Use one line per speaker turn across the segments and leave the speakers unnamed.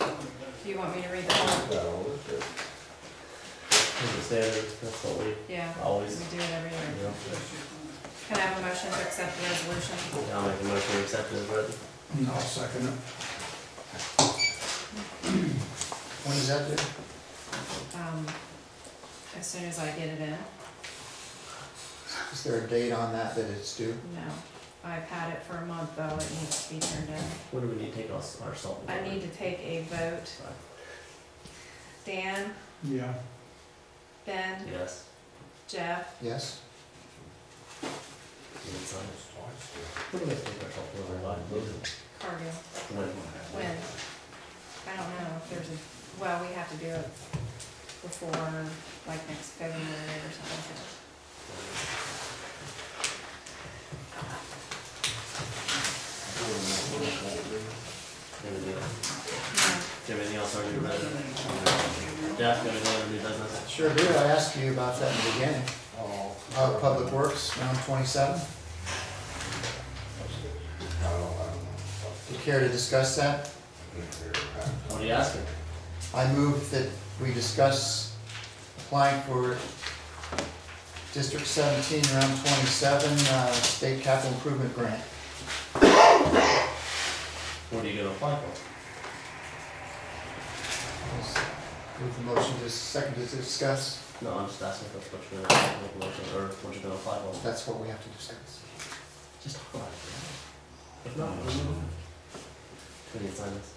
Do you want me to read the whole?
No, we're good.
As I said, that's what we
Yeah, we
always,
do it every
you
year.
know,
Can I have a motion to accept the resolution?
I'll make a motion to accept it, but
I'll second it.
When is that due?
Um, as soon as I get it in?
Is there a date on that that it's due?
No. I've had it for a month though, it needs to be turned in.
what do we need to take us, our salt? and
I
pepper?
need to take a vote. Dan,
Yeah,
Ben,
Yes.
Jeff,
Yes?
We need some. What do we take our salt and pepper line?
Cargill,
When?
When? I don't know if there's a, well, we have to do it before, like next February or something like that.
Anything else?
No.
Do you have anything else on your business? Jeff, got any other new business?
Sure do. I asked you about that in the beginning.
Oh.
Uh, Public Works, round twenty-seven.
I don't, I don't know.
Do you care to discuss that?
What are you asking?
I move that we discuss applying for District seventeen, round twenty-seven, uh, state capital improvement grant.
What are you gonna apply for?
Move the motion to second to discuss.
No, I'm just asking if that's what you're gonna make a motion, or what you're gonna apply for.
That's what we have to discuss.
Just talk about it. If not, we'll move on. Do we need to sign this?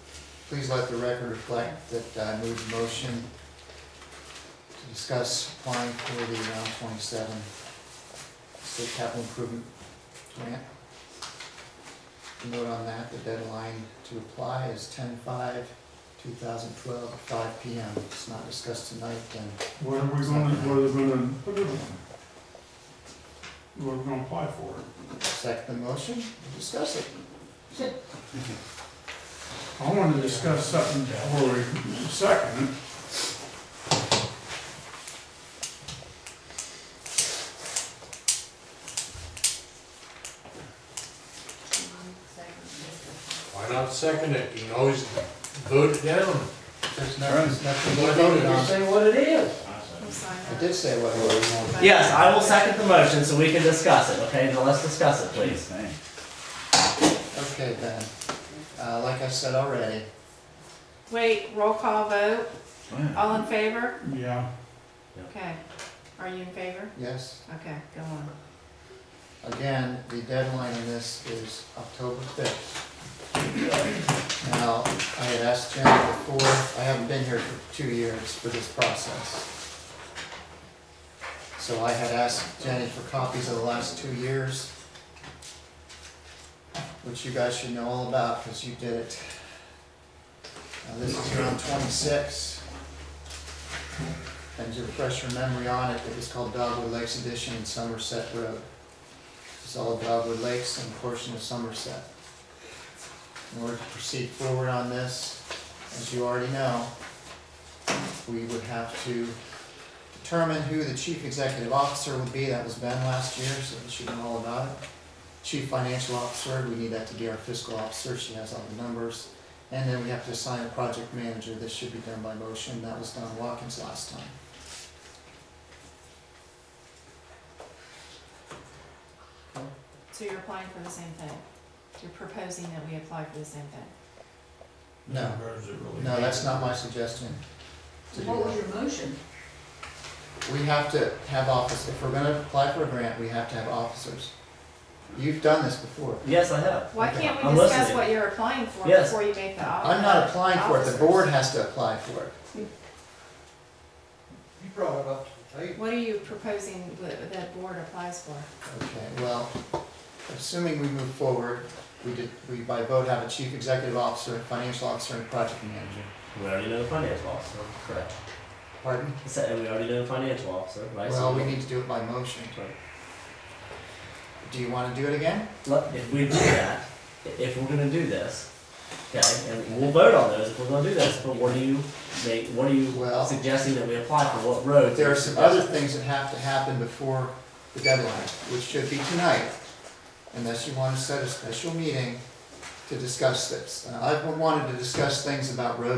Please let the record reflect that I moved the motion to discuss applying for the round twenty-seven state capital improvement grant. Note on that, the deadline to apply is ten-five, two thousand twelve, five P M. If it's not discussed tonight, then
what are we gonna, what are we gonna put it on? What are we gonna apply for?
second the motion, discuss it.
I wanna discuss something before we second. it.
Why not second it? You can always vote it down.
There's no- there's nothing to
Why
be
don't
voted
you
on.
say what it is?
We'll sign
I
that.
did say what it was.
Yes, I will second the motion so we can discuss it, okay? Now let's discuss it, please.
Okay, Ben. Uh, like I said already,
Wait, roll call vote. All in favor?
Yeah,
Okay. Are you in favor?
yes?
Okay, go on.
Again, the deadline on this is October fifth. Now, I had asked Jim before, I haven't been here for two years for this process. So I had asked Jenny for copies of the last two years, which you guys should know all about, because you did it. Now, this is around twenty-six. And to refresh your memory on it, it was called Dogwood Lakes Edition in Somerset Road. It's all Dogwood Lakes and a portion of Somerset. In order to proceed forward on this, as you already know, we would have to determine who the chief executive officer would be. That was Ben last year, so you should know all about it. Chief financial officer, we need that to be our fiscal officer. She has all the numbers. And then we have to assign a project manager. This should be done by motion. That was Don Watkins last time.
So you're applying for the same thing? You're proposing that we apply for the same thing?
No.
Is it really-
No, that's not my suggestion. to do
What
that.
was your motion?
We have to have office, if we're gonna apply for a grant, we have to have officers. You've done this before.
Yes, I have.
Why can't we
I'm
discuss
listening.
what you're applying for
Yes.
before you make the offer?
I'm not applying for it, the board has to apply for it.
You brought it up to the table.
What are you proposing that that board applies for?
Okay, well, assuming we move forward, we did, we by vote have a chief executive officer, financial officer, and project manager.
We already know the financial officer, correct?
Pardon?
I said we already know the financial officer, right? So-
Well, we need to do it by motion.
Right.
Do you wanna do it again?
Look, if we do that, i- if we're gonna do this, okay, and we'll vote on those if we're gonna do this, but what do you make, what are you
Well-
suggesting that we apply for, what roads?
There are some other things that have to happen before the deadline, which should be tonight, unless you want to set a special meeting to discuss this. And I've wanted to discuss things about road